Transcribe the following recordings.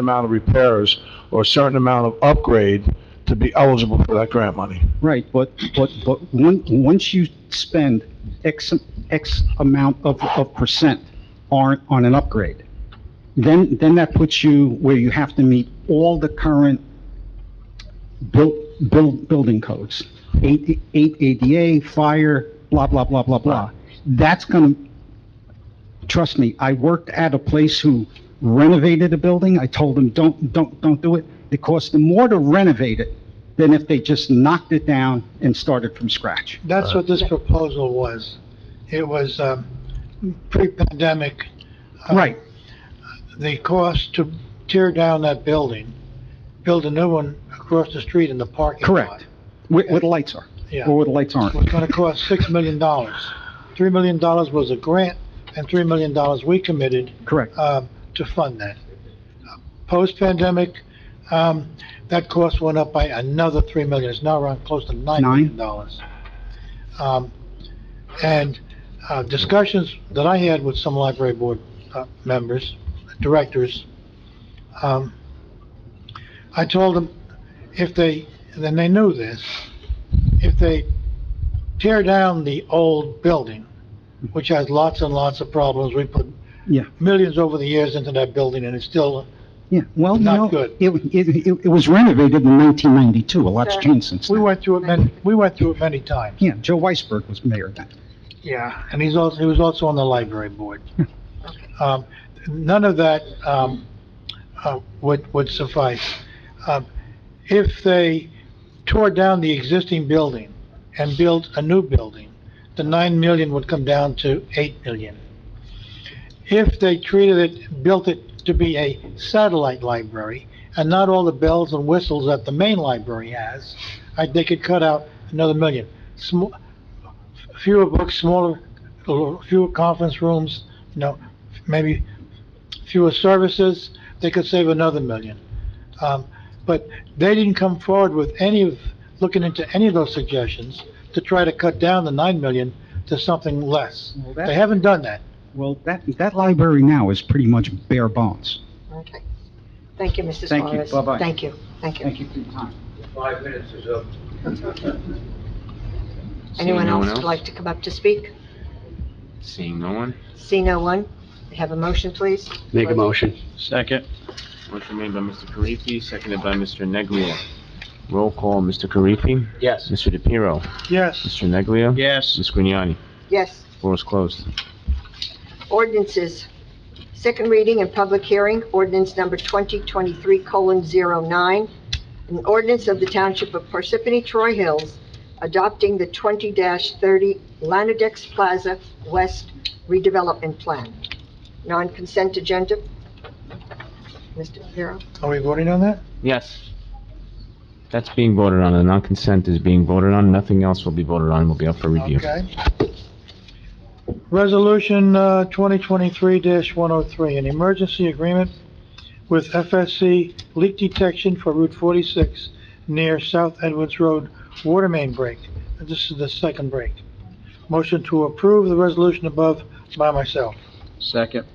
amount of repairs or a certain amount of upgrade to be eligible for that grant money. Right, but, but, but on- once you spend X, X amount of, of percent on, on an upgrade, then, then that puts you where you have to meet all the current built, build, building codes. Eight, eight ADA, fire, blah, blah, blah, blah, blah. That's gonna, trust me, I worked at a place who renovated a building. I told them, don't, don't, don't do it. It cost them more to renovate it than if they just knocked it down and started from scratch. That's what this proposal was. It was, um, pre-pandemic. uh, Right, The cost to tear down that building, build a new one across the street in the parking lot. correct. Where, where the lights are, Yeah, or where the lights aren't. was gonna cost six million dollars. Three million dollars was a grant, and three million dollars we committed, Correct. um, to fund that. Post-pandemic, um, that cost went up by another three million, it's now around close to nine million dollars. Um, and, uh, discussions that I had with some library board, uh, members, directors, um, I told them if they, and then they knew this, if they tear down the old building, which has lots and lots of problems, we put Yeah. millions over the years into that building, and it's still, Yeah, well, you Not know, good. it, it, it- it was renovated in 1992. A lot's Sure. changed since we then. went through it many, we went through it many times. Yeah, Joe Weisberg was mayor then. Yeah. And he's also, he was also on the library board. Um, none of that, um, uh, would, would suffice. Um, if they tore down the existing building and built a new building, the nine million would come down to eight million. If they treated it, built it to be a satellite library and not all the bells and whistles that the main library has, I, they could cut out another million. Sm- fewer books, smaller, fewer conference rooms, you know, maybe fewer services, they could save another million. Um, but they didn't come forward with any of, looking into any of those suggestions to try to cut down the nine million to something less. Well, that- They haven't done that. Well, that, that library now is pretty much bare bones. Okay. Thank you, Mr. Suarez. Thank you. Bye-bye. Thank you, thank you. Thank you for your time. Five minutes is up. Anyone Seeing no one else would like to come up to speak? Seeing no one? See no one? Have a motion, please? Make a motion. Second. Motion made by Mr. Karifi, seconded by Mr. Neglia. Roll call, Mr. Karifi? Yes. Mr. DePiero? Yes, Mr. Neglia? Yes. Ms. Grignani? Yes. Floor is closed. Ordinances. Second reading and public hearing, ordinance number 2023:09, an ordinance of the Township of Parsippany Troy Hills adopting the 20-30 Lanadex Plaza West redevelopment plan. Non-consent agenda. Mr. Piero? are we voting on that? Yes. That's being voted on. The non-consent is being voted on. Nothing else will be voted on. Will be up for review. Okay. Resolution uh, 2023-103, an emergency agreement with FSC leak detection for Route 46 near South Edwards Road water main break. This is the second break. Motion to approve the resolution above by myself. Second.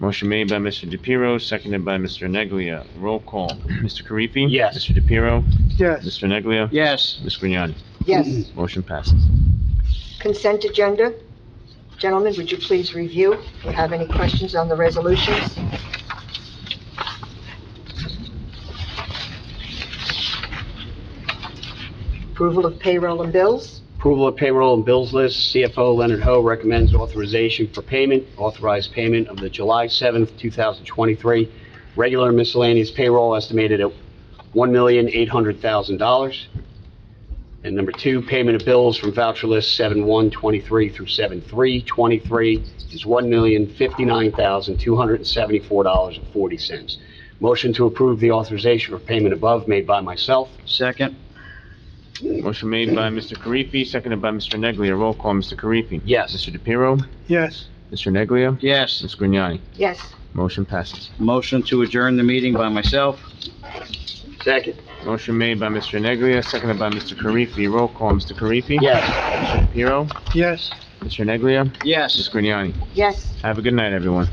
Motion made by Mr. DePiero, seconded by Mr. Neglia. Roll call, Mr. Karifi? Yes. Mr. DePiero? Yes, Mr. Neglia? Yes. Ms. Grignani? Yes. Motion passes. Consent agenda. Gentlemen, would you please review? If you have any questions on the resolutions? Approval of payroll and bills? Approval of payroll and bills list. CFO Leonard Ho recommends authorization for payment. Authorized payment of the July 7th, 2023 regular miscellaneous payroll estimated at $1,800,000. And number two, payment of bills from voucher list 7123 through 7323 is $1,059,274.40. Motion to approve the authorization for payment above made by myself. Second. Motion made by Mr. Karifi, seconded by Mr. Neglia. Roll call, Mr. Karifi? Yes. Mr. DePiero? yes, Mr. Neglia? Yes. Ms. Grignani? Yes. Motion passes. Motion to adjourn the meeting by myself. Second. Motion made by Mr. Neglia, seconded by Mr. Karifi. Roll call, Mr. Karifi? Yes. Mr. DePiero? yes. Mr. Neglia? Yes. Ms. Grignani? Yes. Have a good night, everyone.